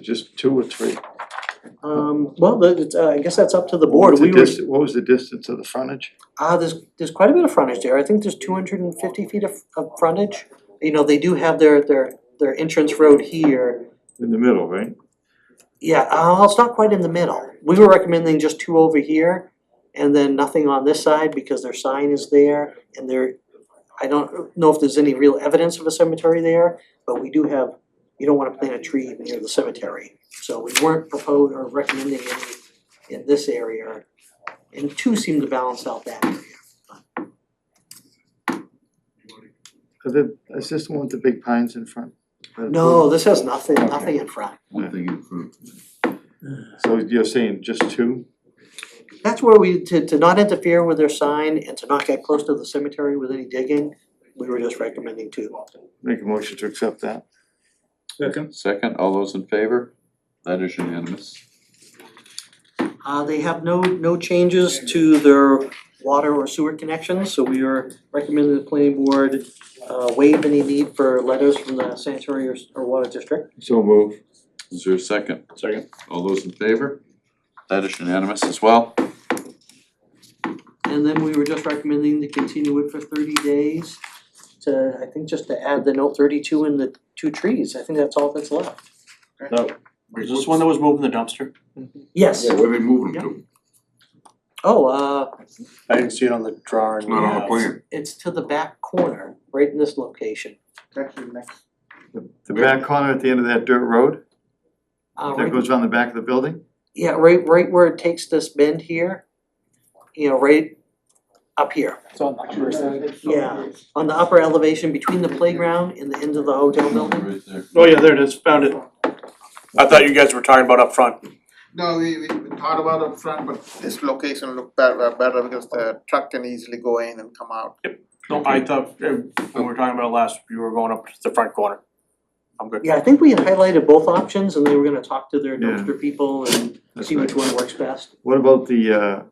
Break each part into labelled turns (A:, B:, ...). A: Just two or three?
B: Um, well, the- it's, uh, I guess that's up to the board,
A: What's the
B: we were,
A: dist- What was the distance of the frontage?
B: ah, there's, there's quite a bit of frontage there, I think there's two hundred and fifty feet of, of frontage. You know, they do have their, their, their entrance road here,
A: In the middle, right?
B: yeah, uh, it's not quite in the middle. We were recommending just two over here, and then nothing on this side, because their sign is there, and there, I don't know if there's any real evidence of a cemetery there, but we do have, you don't wanna plant a tree near the cemetery. So we weren't proposed or recommending any in this area, and two seem to balance out that area.
A: Is it, is this the one with the big pines in front?
B: No, this has nothing, nothing in front.
C: Nothing in front.
A: So you're saying just two?
B: That's where we, to, to not interfere with their sign and to not get close to the cemetery with any digging, we were just recommending two.
A: Make a motion to accept that.
D: Second.
C: Second, all those in favor? That is unanimous.
B: Uh, they have no, no changes to their water or sewer connections, so we are recommending the planning board uh, waive any need for letters from the sanitary or, or water district.
A: So move.
C: Is there a second?
D: Second.
C: All those in favor? That is unanimous as well.
B: And then we were just recommending to continue it for thirty days to, I think just to add the note thirty-two and the two trees, I think that's all that's left.
D: Is this one that was moving the dumpster?
B: Yes,
E: where they moving them to,
B: oh, uh,
D: I didn't see it on the
E: it's
D: drawing.
E: not on the
B: Yeah.
E: plan.
B: it's to the back corner, right in this location.
A: The back corner at the end of that dirt road
B: Uh,
A: that
B: right
A: goes around the back of the building?
B: Yeah, right, right where it takes this bend here, you know, right up here. Yeah, on the upper elevation between the playground and the end of the hotel building.
C: Right there.
D: Oh, yeah, there it is, found it. I thought you guys were talking about up front.
F: No, we we we thought about up front, but this location looked better better because the truck can easily go in and come out.
D: No, I thought, uh, when we were talking about it last, you were going up to the front corner. I'm good.
B: Yeah, I think we had highlighted both options and they were gonna talk to their
A: Yeah.
B: dumpster people and
A: That's
B: see which
A: right.
B: one works best.
A: What about the uh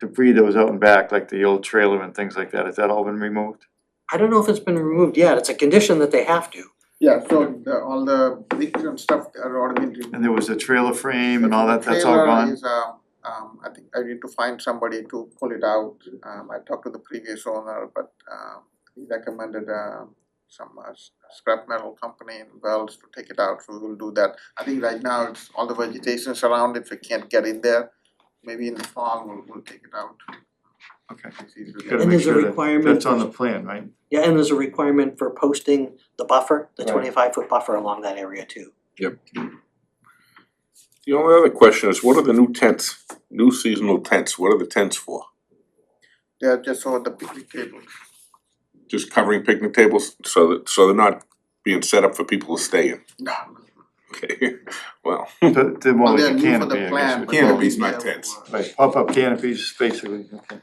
A: debris that was out and back, like the old trailer and things like that? Has that all been removed?
B: I don't know if it's been removed yet, it's a condition that they have to.
F: Yeah, so the all the bricks and stuff are already been removed.
A: And there was a trailer frame and all that, that's all
F: Trailer
A: gone?
F: is, um um I think I need to find somebody to pull it out. Um I talked to the previous owner, but um he recommended um some uh, s- scrap metal company in Wells to take it out, so we will do that. I think right now it's all the vegetation around, if we can't get in there, maybe in the fall we'll we'll take it out.
A: Okay.
F: It's easy to get.
A: Gotta make
B: And there's a
A: sure that-
B: requirement
A: That's
B: for-
A: on the plan, right?
B: Yeah, and there's a requirement for posting the buffer, the
A: Right.
B: twenty-five foot buffer along that area too.
E: The only other question is, what are the new tents, new seasonal tents, what are the tents for?
F: They are just over the picnic table.
E: Just covering picnic tables, so that, so they're not being set up for people to stay in,
F: No.
E: okay, well,
A: To to more
F: Well,
A: like
F: they're
A: a
F: new
A: canopy,
F: for the
A: I guess.
F: plan,
A: would call
F: but
A: it.
F: they'll
E: Canopies,
F: be
E: not
F: there
E: tents.
F: for-
A: Like pop-up canopies, basically, okay.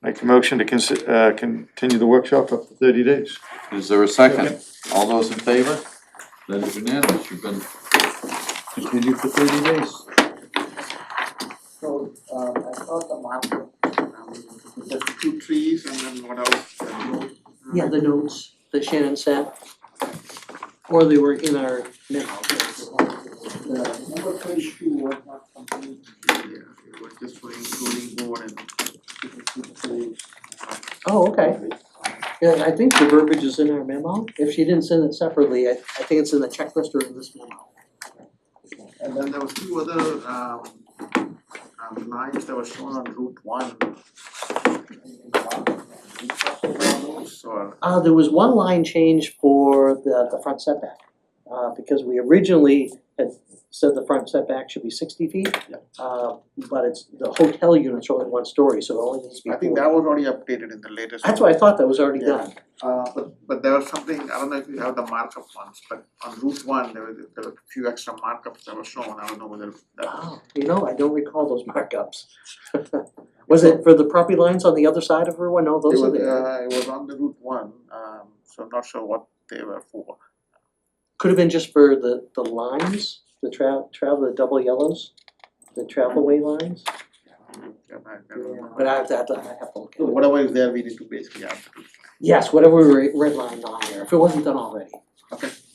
A: Make a motion to consi- uh continue the workshop up to thirty days.
C: Is there a second? All those in favor? That is unanimous. You've been continued for thirty days.
F: So, uh, I thought the marker, um, just two trees and then what else? The road, uh,
B: Yeah, the notes that Shannon sent. Or they were in our memo.
F: The number thirty-two was not complete. Yeah, it was just for including board and.
B: Oh, okay. Yeah, I think the verbiage is in our memo. If she didn't send it separately, I, I think it's in the checklist or in this memo.
F: And then there was two other, um, um, lines that were shown on Route one. So,
B: Uh, there was one line change for the, the front setback. Uh, because we originally had said the front setback should be sixty feet. Uh, but it's, the hotel unit's only one story, so it only needs to be
F: I think
B: four.
F: that was already updated in the latest.
B: That's what I thought that was already
F: Yeah.
B: done.
F: Uh but but there was something, I don't know if you have the markup ones, but on Route one, there were there were a few extra markups that were shown, I don't know whether that.
B: Wow, you know, I don't recall those markups. Was it for the property lines on the other side of her one? No,
F: It
B: those are
F: was
B: there.
F: uh it was on the Route one, um so I'm not sure what they were for.
B: Could have been just for the, the lines, the tra- travel, the double yellows, the travelway lines,
F: Yeah, I don't know.
B: but I have to, I have to I have to look
F: So
B: at it.
F: Whatever is there, we need to basically add.
B: Yes, whatever we re- redlined on there, if it wasn't done already.
F: Okay.